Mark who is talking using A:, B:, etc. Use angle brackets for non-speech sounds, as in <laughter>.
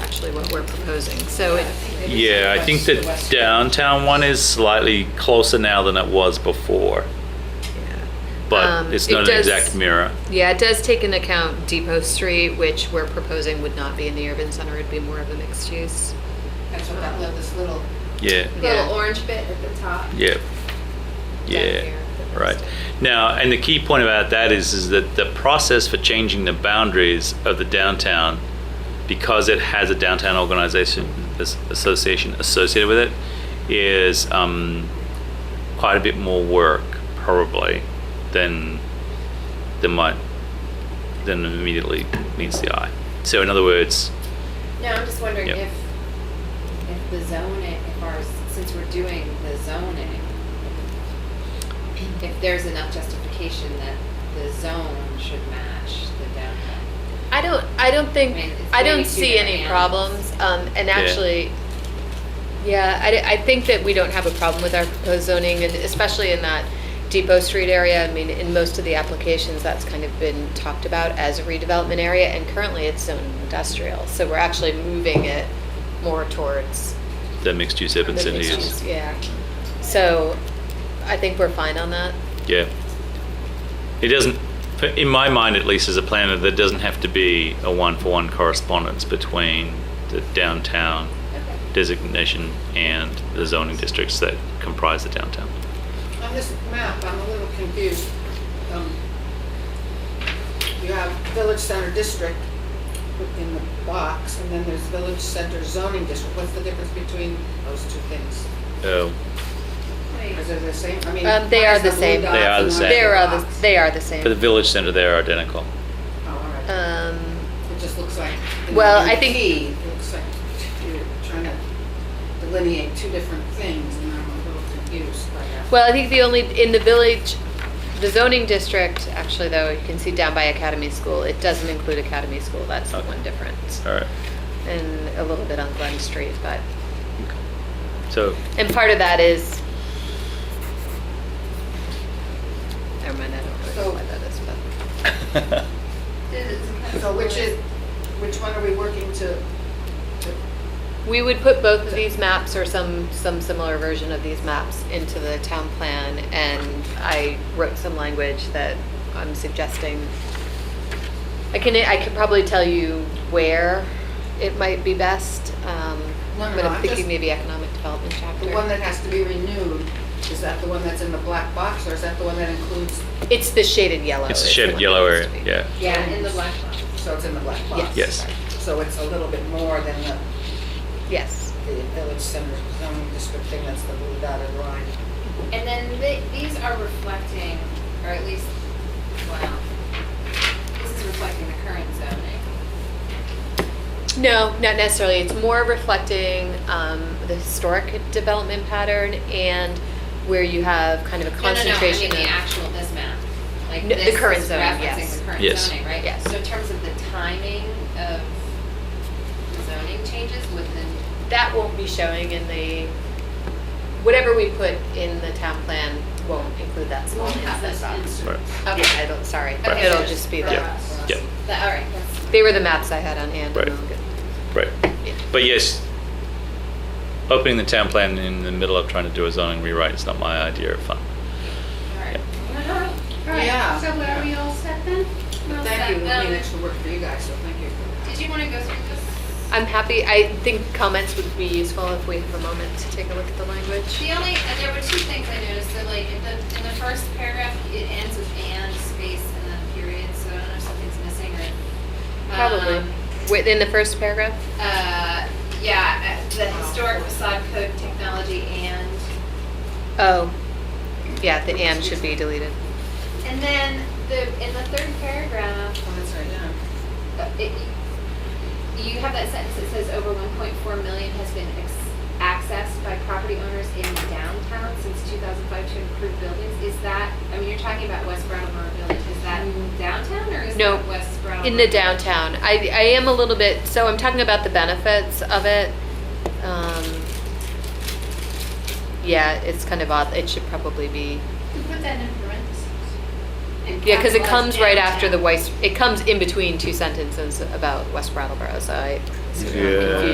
A: essentially what we're proposing. So it,
B: Yeah, I think the downtown one is slightly closer now than it was before, but
A: Um,
B: it's
A: it
B: not an
A: does-
B: exact mirror.
A: yeah, it does take into account Depot Street, which we're proposing would not be in the urban center, it'd be more of a mixed use.
C: That's what that little, this little,
B: Yeah,
A: Yeah.
C: little orange bit at the top.
B: yeah, yeah, right. Now, and the key point about that is, is that the process for changing the boundaries of the downtown, because it has a downtown organization, as- association associated with it, is um, quite a bit more work probably than than might than immediately meets the eye. So in other words,
C: No, I'm just wondering
B: Yep.
C: if, if the zoning, if our, since we're doing the zoning, if there's enough justification that the zone should match the downtown.
A: I don't, I don't
C: I mean,
A: think,
C: it's
A: I don't
C: maybe two
A: see any
C: different
A: problems, um, and actually, yeah, I, d- I think that we don't have a problem with our proposed zoning, and especially in that Depot Street area, I mean, in most of the applications, that's kind of been talked about as a redevelopment area, and currently it's zoned industrial, so we're actually moving it more towards
B: the mixed-use urban
A: the
B: city
A: mixed
B: is,
A: use, yeah. So, I think we're fine on that.
B: yeah. It doesn't, in my mind at least as a planner, there doesn't have to be a one-for-one correspondence between the downtown
C: Okay.
B: designation and the zoning districts that comprise the downtown.
D: On this map, I'm a little confused. Um, You have Village Center District in the box, and then there's Village Center Zoning District. What's the difference between those two things?
B: Oh,
D: Is it the same? I mean,
A: Um, they
D: why
A: are
D: is
A: the
D: blue
A: same. They
D: dots
B: are the
D: and
B: same.
D: why is
A: They are,
D: the
A: the-
D: box?
A: they are the
B: for the
A: same.
B: village center, they're identical.
D: Oh, all right.
A: Um,
D: It just looks like. in
A: well,
D: the
A: I think-
D: key, It looks like you're trying to delineate two different things, and I'm a little confused by that.
A: Well, I think the only, in the village, the zoning district, actually though, you can see down by Academy School, it doesn't include Academy School, that's the
B: Okay.
A: one difference.
B: All right,
A: And a little bit on Glen Street, but,
B: so <laughs>
A: and part of that is, never mind, I don't really know why that is, but.
D: So which is, which one are we working to? to-
A: We would put both of these maps or some, some similar version of these maps into the town plan and I wrote some language that I'm suggesting. I can, I could probably tell you where it might be best, um,
D: No, no,
A: but
D: no,
A: I'm
D: I'm
A: thinking
D: just-
A: maybe economic development chapter.
D: The one that has to be renewed, is that the one that's in the black box, or is that the one that includes,
A: It's the shaded yellow.
B: it's a
A: is the
B: shaded
A: one
B: yellow
A: that
B: area,
A: needs to be-
B: yeah.
C: Yeah, in the black box.
D: so it's in the black box?
B: Yes.
D: So it's a little bit more than the,
A: Yes,
D: the village center zoning district thing, that's the blue dotted line.
C: And then the- these are reflecting, or at least, wow, this is reflecting the current zoning.
A: no, not necessarily, it's more reflecting, um, the historic development pattern and where you have kind of a
C: No, no, no, I mean
A: concentration of.
C: the actual, this map. Like
A: No, the
C: this is
A: current zoning, yes.
C: referencing the current
B: Yes.
C: zoning, right?
A: Yes.
C: So in terms of the timing of the zoning changes within,
A: That won't be showing in the, whatever we put in the town plan won't include that small
C: Won't have
A: inset
C: those
A: box.
B: Right.
A: Okay, I don't, sorry.
C: Okay,
A: It'll
C: so
A: just be
C: for
A: the,
C: us.
B: Yeah.
C: the, all right, that's,
A: they were the maps I had on hand.
B: Right. Right.
A: Yeah.
B: But yes, opening the town plan in the middle of trying to do a zoning rewrite is not my idea of fun.
C: all right.
E: All right,
D: Yeah.
E: so are we all set then? We're all set.
D: Thank you, I mean,
E: Um,
D: extra work for you guys, so thank you.
E: Did you want to go through this?
A: I'm happy, I think comments would be useful if we have a moment to take a look at the language.
E: The only, uh, there were two things I noticed, so like in the, in the first paragraph, it ends with and space and then period, so I don't know if something's missing or.
A: Probably.
E: Um,
A: Within the first paragraph?
E: Uh, yeah, uh, the historic facade code technology and,
A: Oh, yeah, the and should be deleted.
E: and then the, in the third paragraph,
D: Well, that's right, yeah.
E: Uh, it- You have that sentence that says over 1.4 million has been ex- accessed by property owners in downtown since 2005 to improve buildings. Is that, I mean, you're talking about West Brattleboro Village, is that downtown or is
A: Mm-hmm. No,
E: that West Brattleboro?
A: In the downtown, I, I am a little bit, so I'm talking about the benefits of it. Um, Yeah, it's kind of odd, it should probably be,
E: Put that in parentheses.
A: yeah, because it comes right after the Weiss, it comes in between two sentences about West Brattleboro, so I. it's kind of
B: Yeah.
A: confusing.